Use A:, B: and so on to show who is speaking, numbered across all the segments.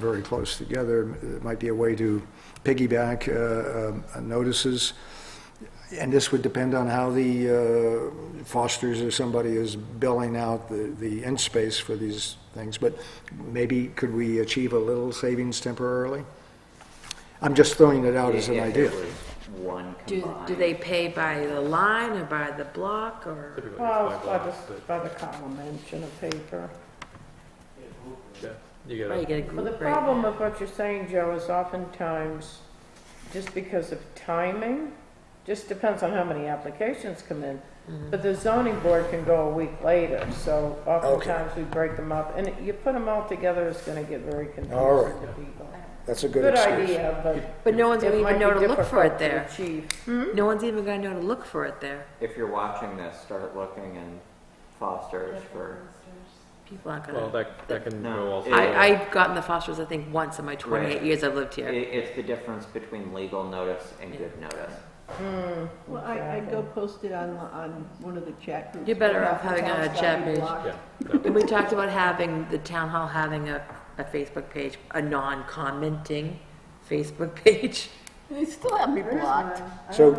A: very close together. It might be a way to piggyback uh, um, notices. And this would depend on how the uh, Fosters or somebody is billing out the, the end space for these things. But maybe could we achieve a little savings temporarily? I'm just throwing it out as an
B: If there
A: idea.
B: was One
C: Do, do
B: combined,
C: they pay by the line or by the block or?
D: Well, it's by the, by the column inch in a paper.
E: You
C: Or you
E: gotta,
C: get a
D: Well, the
C: group rate?
D: problem of what you're saying, Joe, is oftentimes, just because of timing, just depends on how many applications come in.
C: Mm-hmm.
D: But the zoning board can go a week later, so oftentimes we break them up. And you put them all together, it's gonna get very
A: All right.
D: confusing to people.
A: That's a good
D: Good
A: excuse.
D: idea, but
C: But no one's gonna
D: it might
C: even
D: be
C: know to look for
D: difficult Hmm?
C: it
D: to
C: there.
D: achieve.
C: No one's even gonna know to look for it there.
B: if you're watching this, start looking in Foster's for,
C: People aren't
E: well,
C: gonna.
E: that, that can
B: No,
E: go also.
B: it-
C: I, I've gotten the Fosters, I think, once in my
B: Right.
C: twenty-eight years I've lived
B: i-
C: here.
B: it's the difference between legal notice and good notice.
F: Well, I, I'd go post it on, on one of the chat groups.
C: You're better
F: right
C: off
F: off the
C: having
F: top,
C: a
F: it's gotta
C: chat
F: be
C: page.
F: blocked.
E: Yeah,
C: And we talked about having, the town hall having a, a Facebook page, a non-commenting Facebook page.
F: They still have me blocked.
A: So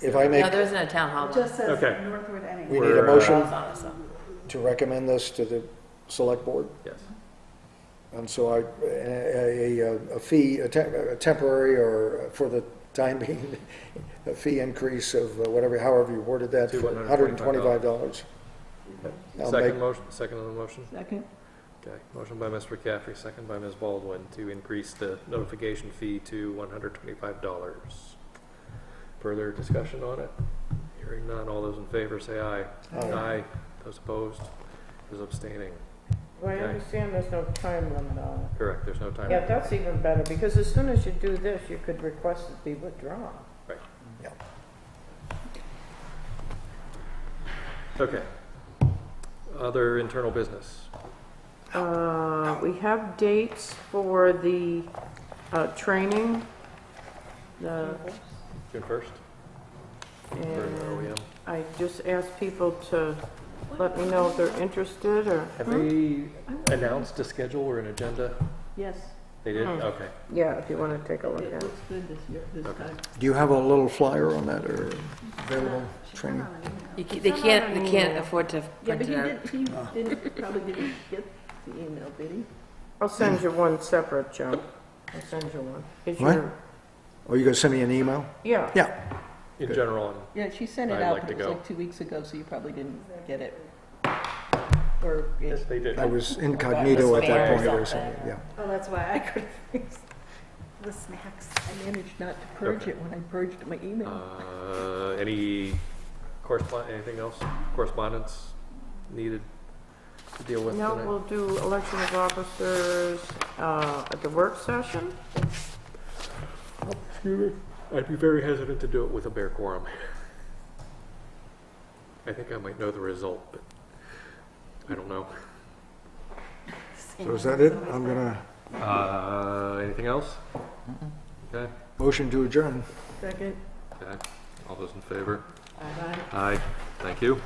A: if I make,
C: No, there isn't a town hall. one.
G: Just says
E: Okay.
G: Northwood NA.
A: we need a
E: We're, uh,
A: motion
C: Thought of some.
A: to recommend this to the select board?
E: yes.
A: And so I, a, a- a fee, a tem- a temporary or for the time being, a fee increase of uh, whatever, however you worded that,
E: To
A: $125. I'll make-
E: Second motion, second on the motion?
F: Second,
E: Okay, motion by Mr. McCaffrey, second by Ms. Baldwin to increase the notification fee to one hundred twenty-five dollars. Further discussion on it? Hearing none, all those in favor say aye.
A: Aye.
E: Those opposed, those abstaining.
D: Well, I
E: Okay.
D: understand there's no time limit on it.
E: Correct, there's no time.
D: Yeah, that's even better, because as soon as you do this, you could request it be withdrawn.
E: Okay. Other internal business.
D: Uh, We have dates for the uh, training, the,
E: June first? For
D: and
E: OEM.
D: I just asked people to let me know if they're interested, or,
E: Have they announced a schedule or an agenda?
F: yes,
E: They did?
D: Mm-hmm.
E: Okay.
D: yeah, if you want to take a look
F: it
D: at it.
F: looks good this year, this time.
A: Do you have a little flyer on that or available training?
C: You ca- They can't, they can't afford to
F: Yeah,
C: print
F: but he
C: it out.
F: did, he didn't, probably didn't get the email, did he?
D: I'll send you one separate, Joe. I'll send you one. Is
A: What?
D: your-
A: Or Oh, you gonna send me an email?
D: Yeah,
A: Yeah,
E: In general, um, and
F: Yeah, she sent it
E: I'd
F: out,
E: like
F: but
E: to
F: it was
E: go.
F: like two weeks ago, so you probably didn't get it. Or,
E: Yes,
F: it-
E: they did.
A: I was incognito at that point or something, yeah.
G: Oh, that's why I couldn't fix the snacks.
F: I managed not to purge it when I purged my email.
E: Uh, any correspond, anything else? Correspondence needed to deal with
D: no,
E: tonight?
D: we'll do election of officers uh, at the work session.
E: Excuse me. I'd be very hesitant to do it with a bare quorum. I think I might know the result, but I don't know.
A: So is that it? I'm gonna,
E: Uh, anything else? Okay,
A: motion to adjourn.
F: Second,
E: okay. All those in favor?
F: bye.
E: Aye, thank you.